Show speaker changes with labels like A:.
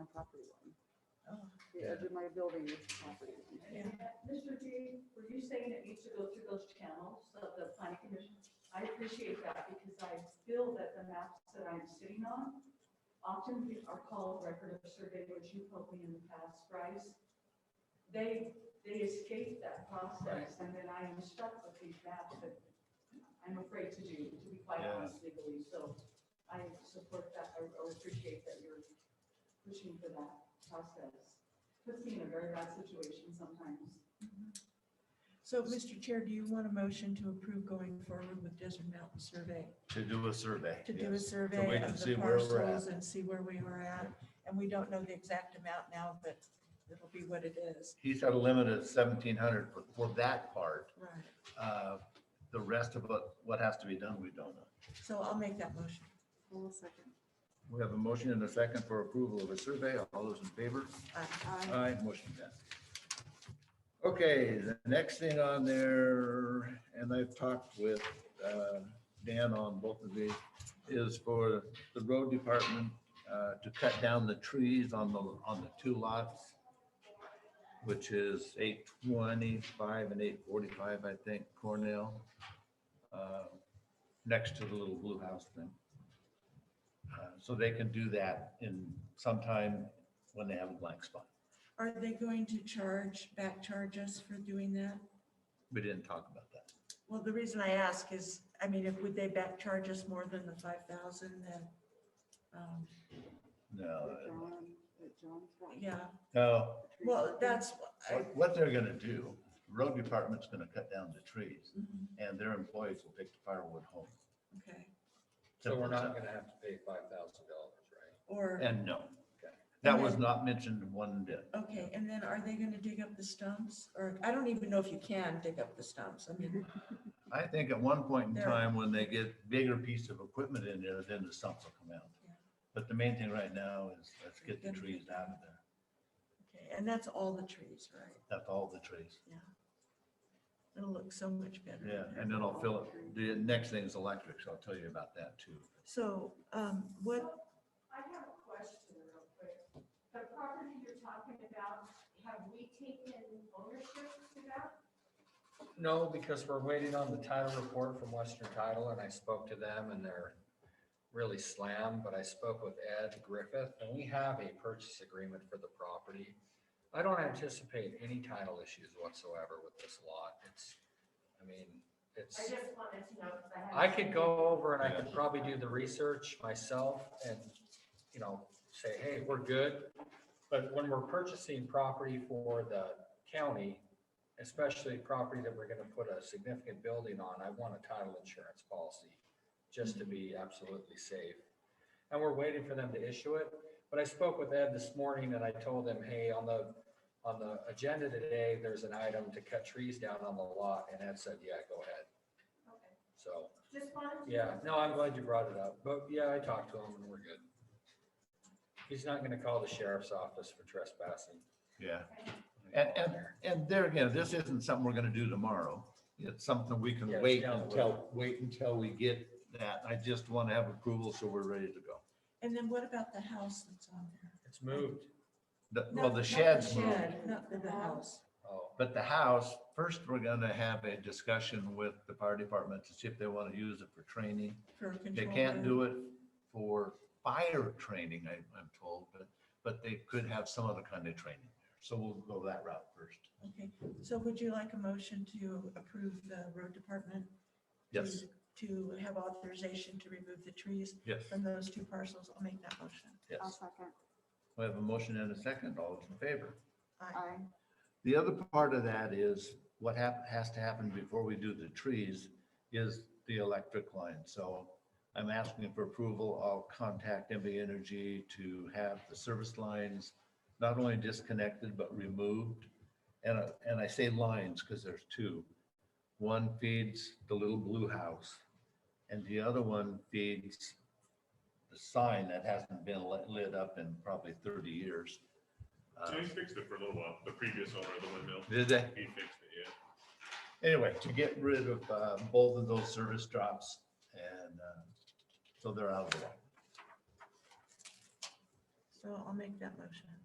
A: Oh,
B: edge of my building, which property?
A: Mr. G, were you saying it needs to go through those channels of the planning commission? I appreciate that because I feel that the maps that I'm sitting on often be- are called record of survey, which you told me in the past, Bryce. They, they escape that process and then I am stuck with these maps that I'm afraid to do, to be quite
C: Yeah.
A: honest legally. So I support that or or appreciate that you're pushing for that process. Puts me in a very bad situation sometimes.
D: So, Mr. Chair, do you want a motion to approve going forward with Desert Mountain Survey?
C: To do a survey.
D: To do a
C: yes. So we
D: survey
C: can
D: of
C: see
D: the
C: where we're at.
D: parcels and see where we were at? And we don't know the exact amount now, but it'll be what it is.
C: He's got a limit of seventeen hundred for, for that part.
D: Right.
C: Uh, The rest of what, what has to be done, we don't know.
D: So I'll make that motion.
B: One second.
C: We have a motion and a second for approval of a survey. All those in favor?
D: Aye.
B: Aye.
C: Aye, motion passed. Okay, the next thing on there, and I've talked with uh, Dan on both of these, is for the road department uh, to cut down the trees on the, on the two lots, which is 825 and 845, I think, Cornell, uh, next to the little blue house thing. Uh, So they can do that in sometime when they have a blank spot.
D: Are they going to charge, back charge us for doing that?
C: We didn't talk about that.
D: Well, the reason I ask is, I mean, if, would they back charge us more than the five thousand that, um,
A: Uh,
B: That
C: No,
B: John- that John's got
D: yeah,
C: no,
B: trees.
D: well, that's, I-
C: what, what they're gonna do, the road department's gonna cut down the trees
D: mhm,
C: and their employees will take the firewood home.
D: okay,
E: So we're not gonna have to pay five thousand dollars, right?
D: or,
C: And no, that was not mentioned one bit.
D: okay, and then are they gonna dig up the stumps? Or, I don't even know if you can dig up the stumps, I
C: Mm-hmm.
D: mean,
C: I think at one point in
D: There.
C: time, when they get bigger piece of equipment in there, then the stumps will come out.
D: Yeah.
C: But the main thing right now is let's get the trees out of there.
D: okay, and that's all the trees, right?
C: That's all the trees.
D: It'll look so much better.
C: Yeah, and then I'll fill it. The next thing is electric, so I'll tell you about that too.
D: So, um, what,
A: I have a question real quick. The property you're talking about, have we taken ownership to that?
E: No, because we're waiting on the title report from Western Title and I spoke to them and they're really slammed, but I spoke with Ed Griffith and we have a purchase agreement for the property. I don't anticipate any title issues whatsoever with this lot. It's, I mean,
A: I
E: it's,
A: just wanted to know because I have.
E: I could go over and I could probably do the research myself and, you know, say, hey, we're good. But when we're purchasing property for the county, especially property that we're gonna put a significant building on, I want a title insurance policy just to be absolutely safe. And we're waiting for them to issue it. But I spoke with Ed this morning and I told him, hey, on the, on the agenda today, there's an item to cut trees down on the lot. And Ed said, yeah, go ahead.
A: Okay.
E: So.
A: Just wanted to.
E: Yeah, no, I'm glad you brought it up, but yeah, I talked to him and we're good. He's not gonna call the sheriff's office for trespassing.
C: Yeah. And, and, and there again, this isn't something we're gonna do tomorrow. It's something we
E: Yeah,
C: can
E: it's
C: wait
E: down the
C: until, wait until we get that. I just want to have approval so we're ready to go.
D: and then what about the house that's on there?
E: It's moved.
C: The-
D: Not-
C: Well,
D: not
C: the sheds, moved,
D: shed, Not the house,
E: Oh,
C: but the house, first, we're gonna have a discussion with the fire department to see if they want to use it for training.
D: for control.
C: They can't do it for fire training, I, I'm told, but, but they could have some other kind of training. there. So we'll go that route first.
D: Okay, so would you like a motion to approve the road department?
C: Yes,
D: to- To have authorization to remove the trees
C: yes,
D: from those two parcels? I'll make that motion.
B: I'll
C: yes.
B: second.
C: We have a motion and a second. All those in favor?
D: Aye.
B: Aye.
C: The other part of that is what hap, has to happen before we do the trees is the electric line. So I'm asking for approval. I'll contact MB Energy to have the service lines not only disconnected, but removed. And, I- and I say lines because there's two. One feeds the little blue house and the other one feeds the sign that hasn't been lit lit up in probably 30 years. Uh,
F: They fixed it for a little while, the previous owner of the windmill,
C: Did they?
F: he fixed it, yeah.
C: anyway, to get rid of uh, both of those service drops and uh, so they're out of the way.
D: So I'll make that motion.